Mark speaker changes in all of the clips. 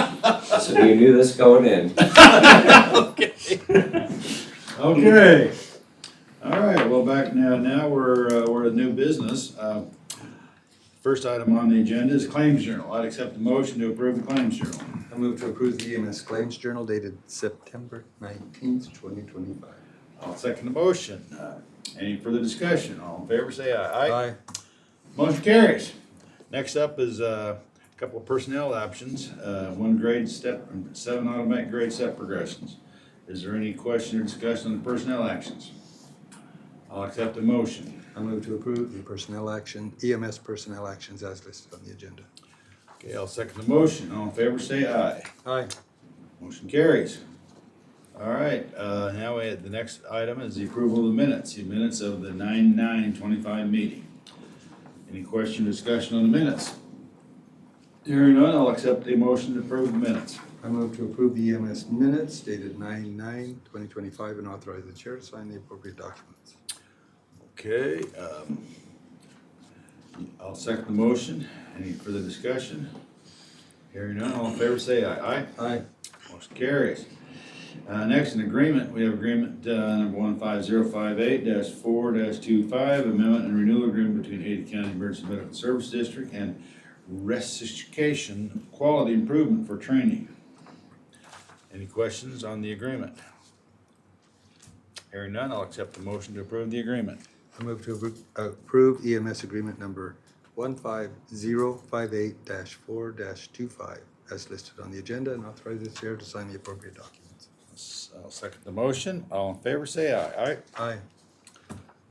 Speaker 1: us and you knew this going in.
Speaker 2: Okay, all right, well, back now, now we're, uh, we're at new business. Uh, First item on the agenda is claims journal. I'd accept the motion to approve the claims journal.
Speaker 3: I move to approve the EMS Claims Journal dated September nineteenth, twenty twenty-five.
Speaker 2: I'll second the motion. Uh, Any further discussion? All in favor, say aye. Aye. Motion carries. Next up is uh, a couple of personnel options, uh, one grade step, seven automatic grade step progressions. Is there any question or discussion on the personnel actions? I'll accept the motion.
Speaker 3: I move to approve the personnel action, EMS personnel actions as listed on the agenda.
Speaker 2: Okay, I'll second the motion. All in favor, say aye.
Speaker 3: Aye.
Speaker 2: Motion carries. All right, uh, now we, the next item is the approval of the minutes, the minutes of the nine-nine twenty-five meeting. Any question, or discussion on the minutes? Hearing none, I'll accept the motion to approve the minutes.
Speaker 3: I move to approve the EMS minutes dated nine nine, twenty twenty-five, and authorize the chair to sign the appropriate documents.
Speaker 2: Okay, um, I'll second the motion. Any further discussion? Hearing none, all in favor say aye. Aye?
Speaker 3: Aye.
Speaker 2: Motion carries. Uh, next, an agreement, we have agreement, uh, number one five zero five eight dash four dash two five, amendment and renewal agreement between Ada County Emergency Medical Service District and Resuscitation Quality Improvement for Training. Any questions on the agreement? Hearing none, I'll accept the motion to approve the agreement.
Speaker 3: I move to appro- approve EMS agreement number one five zero five eight four two five as listed on the agenda and authorize the chair to sign the appropriate documents.
Speaker 2: S- I'll second the motion. All in favor, say aye. Aye.
Speaker 3: Aye.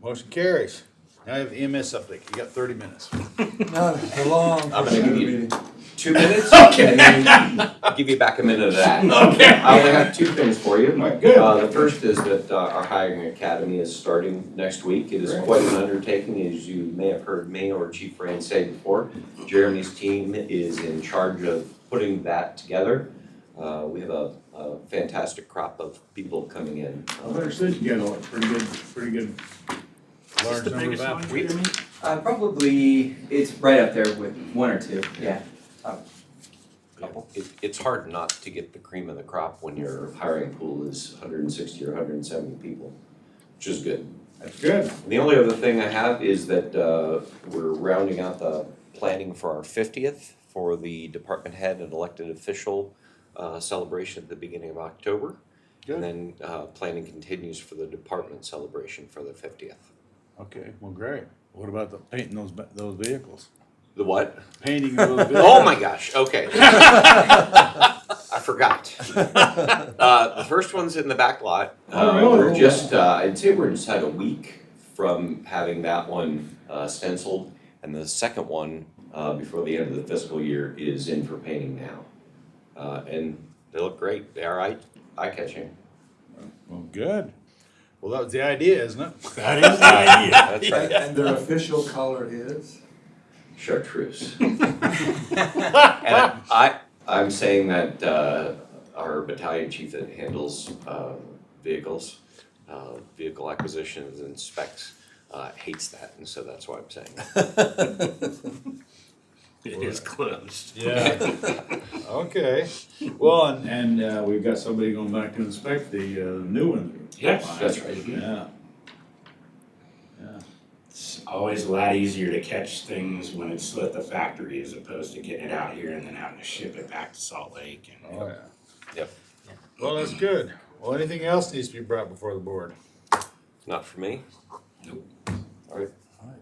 Speaker 2: Motion carries. Now I have the EMS update. You got thirty minutes.
Speaker 3: Not a long.
Speaker 1: I'm gonna give you two minutes, and then I'll give you back a minute of that. Okay. I only have two things for you.
Speaker 2: All right, good.
Speaker 1: Uh, the first is that uh, our hiring academy is starting next week. It is
Speaker 2: Great.
Speaker 1: quite an undertaking, as you may have heard me or Chief Rand say before. Jeremy's team is in charge of putting that together. Uh, we have a, a fantastic crop of people coming in.
Speaker 2: I understood you got a pretty good, pretty good.
Speaker 4: Is
Speaker 2: Large
Speaker 4: this the
Speaker 2: number of
Speaker 4: biggest one,
Speaker 2: applicants.
Speaker 4: Jeremy?
Speaker 5: Uh, probably it's right up there with one or two. Yeah. Couple.
Speaker 1: It, it's hard not to get the cream of the crop when your hiring pool is hundred and sixty or hundred and seventy people, which is good.
Speaker 2: That's good.
Speaker 1: The only other thing I have is that uh, we're rounding out the planning for our fiftieth for the department head and elected official uh, celebration at the beginning of October.
Speaker 2: Good.
Speaker 1: And then uh, planning continues for the department celebration for the fiftieth.
Speaker 2: Okay, well, great. What about the painting those, ba- those vehicles?
Speaker 1: The what?
Speaker 2: Painting those vehicles.
Speaker 1: Oh my gosh, okay. I forgot. Uh, the first one's in the back lot.
Speaker 2: Oh,
Speaker 1: Uh,
Speaker 2: really?
Speaker 1: We're just, uh, I'd say we're inside a week from having that one uh, stenciled. And the second one, uh, before the end of the fiscal year, is in for painting now. Uh, and they look great, they are eye, eye catching.
Speaker 2: Well, good. Well, that was the idea, isn't it?
Speaker 4: That is the idea.
Speaker 1: That's
Speaker 3: And
Speaker 1: right,
Speaker 3: and their official color is?
Speaker 1: chartreuse. And I, I'm saying that uh, our battalion chief that handles uh, vehicles, uh, vehicle acquisitions and specs, uh, hates that, and so that's why I'm saying. that.
Speaker 4: It is closed.
Speaker 2: Yeah. Okay. Well, and, and, uh, we've got somebody going back to inspect the, uh, new ones.
Speaker 4: Yes,
Speaker 1: That's right.
Speaker 2: Yeah.
Speaker 4: It's always a lot easier to catch things when it's at the factory as opposed to getting it out here and then having to ship it back to Salt Lake and.
Speaker 2: Oh, yeah.
Speaker 1: Yep.
Speaker 2: Well, that's good. Well, anything else needs to be brought before the board?
Speaker 1: Not for me.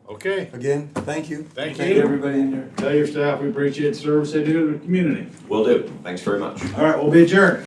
Speaker 2: Okay,
Speaker 3: Again, thank you.
Speaker 2: Thank
Speaker 3: Thank
Speaker 2: you.
Speaker 3: everybody in there.
Speaker 2: tell your staff we appreciate the service they do to the community.
Speaker 1: Will do, thanks very much.
Speaker 2: All right, we'll be adjourned.